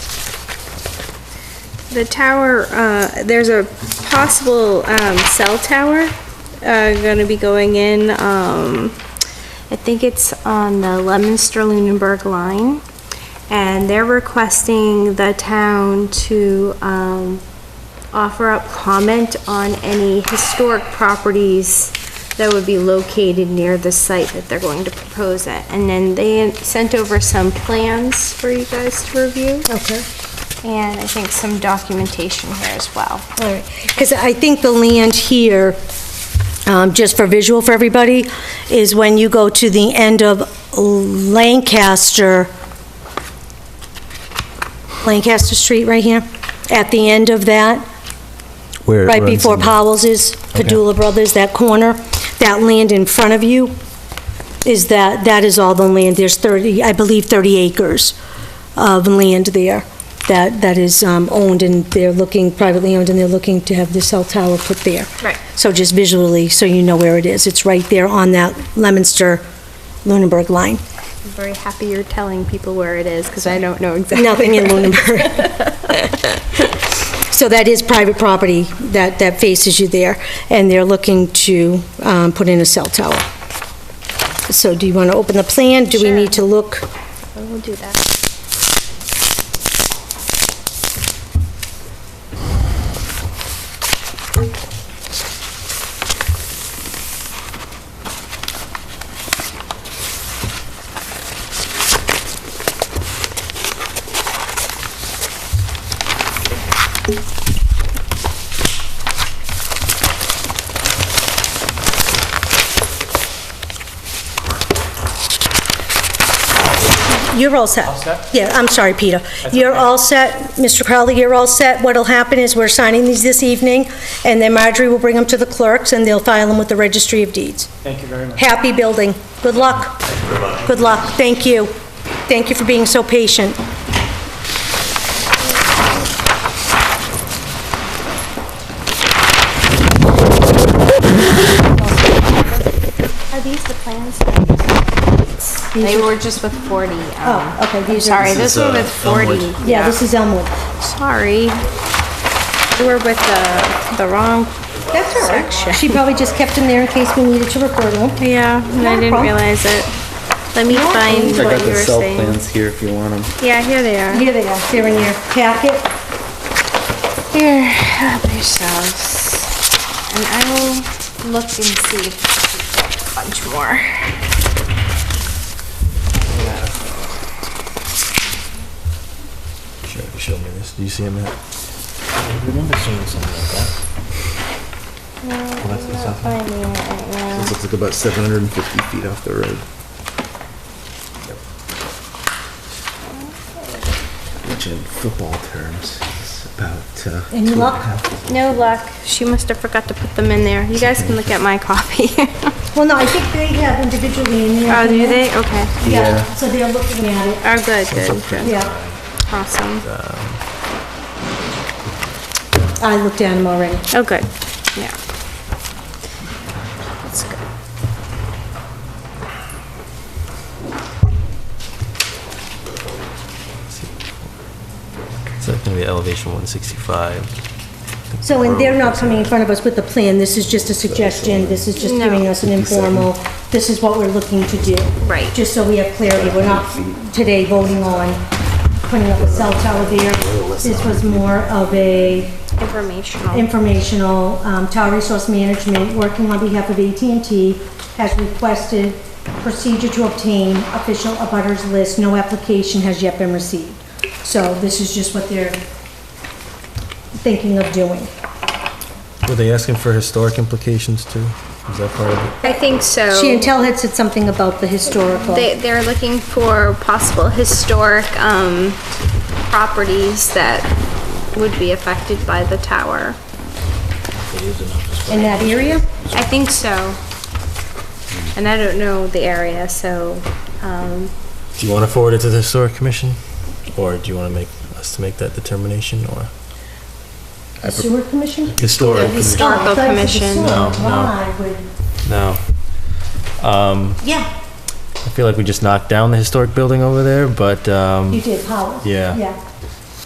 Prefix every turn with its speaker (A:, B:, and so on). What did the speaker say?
A: The tower, uh, there's a possible, um, cell tower, uh, gonna be going in, um, I think it's on the Lemonster-Lunenburg line. And they're requesting the town to, um, offer up comment on any historic properties that would be located near the site that they're going to propose at. And then they sent over some plans for you guys to review.
B: Okay,
A: And I think some documentation here as well.
B: all right. Because I think the land here, um, just for visual for everybody, is when you go to the end of Lancaster, Lancaster Street right here, at the end of that,
C: Where it
B: right
C: runs
B: before
C: in-
B: Powell's is, Padula Brothers, that corner, that land in front of you, is that, that is all the land. There's 30, I believe 30 acres of land there that, that is um, owned and they're looking, privately owned, and they're looking to have the cell tower put there.
A: Right.
B: So just visually, so you know where it is. It's right there on that Lemonster Lunenburg line.
A: I'm very happy you're telling people where it is because I don't know exactly.
B: Nothing in
A: where it is.
B: Lunenburg. So that is private property that, that faces you there, and they're looking to um, put in a cell tower. So do you want to open the plan? Do we
A: Sure.
B: need to look?
A: I will do that.
B: You're all set. Yeah, I'm sorry, Peter. You're all set, Mr. Crowley, you're all set. What'll happen is we're signing these this evening, and then Marjorie will bring them to the clerks, and they'll file them with the Registry of Deeds.
D: Thank you very much.
B: Happy building. Good luck. Good luck. Thank you. Thank you for being so patient.
A: Are these the plans? They were just with 40. um,
B: Oh, okay, these are-
A: Sorry, this
C: This is,
A: one
C: uh,
A: with 40.
C: Elmwood.
B: Yeah, this is Elmwood.
A: Sorry. We were with the, the wrong
B: That's all
A: section.
B: right. She probably just kept them there in case we needed to refer to them.
A: Yeah, and
B: Not
A: I
B: a
A: didn't
B: problem.
A: realize it. Let me find
C: I got
A: what you
C: the
A: were
C: cell
A: saying.
C: plans here if you want them.
A: Yeah, here they are.
B: Here they are, they're in your packet.
A: Here, help yourselves. And I will look and see if I can get a bunch more.
C: Sure, show me this. Do you see them?
D: I remember seeing something like that.
A: Finding it right now.
C: This looks like about 750 feet off the road. Which in football terms is about. Uh,
B: Any
C: two and a
B: luck?
C: half.
A: No luck. She must have forgot to put them in there. You guys can look at my copy.
B: Well, no, I think they have individually in there.
A: oh, do they? Okay.
B: Yeah,
C: Yeah.
B: so they're looking at it,
A: Oh, good, good, good.
B: yeah.
A: Awesome.
B: I looked at them already.
A: Oh, good. Yeah. That's good.
E: So it's gonna be elevation 165.
B: So, and they're not coming in front of us with a plan, this is just a suggestion, this is just
A: No.
B: giving us an informal, this is what we're looking to do.
A: Right.
B: Just so we have clarity, we're not today voting on putting up a cell tower there. This was more of a
A: Informational.
B: informational, um, Tower Resource Management, working on behalf of at and t has requested procedure to obtain official abutters list. No application has yet been received. So this is just what they're thinking of doing.
E: Were they asking for historic implications too? Is that part of it?
A: I think so.
B: Chantel had said something about the historical.
A: They, they're looking for possible historic, um, properties that would be affected by the tower.
B: In that area?
A: I think so. And I don't know the area, so, um,
E: Do you want to forward it to the historic commission? Or do you want to make, us to make that determination or?
B: The Sewer Commission?
E: Historic.
A: Historical
B: Oh, I thought it was the
A: Commission.
B: sewer.
E: No, no.
B: Why would-
E: No. Um,
B: Yeah,
E: I feel like we just knocked down the historic building over there, but,
B: you
E: um,
B: did, Howard.
E: Yeah.
B: Yeah.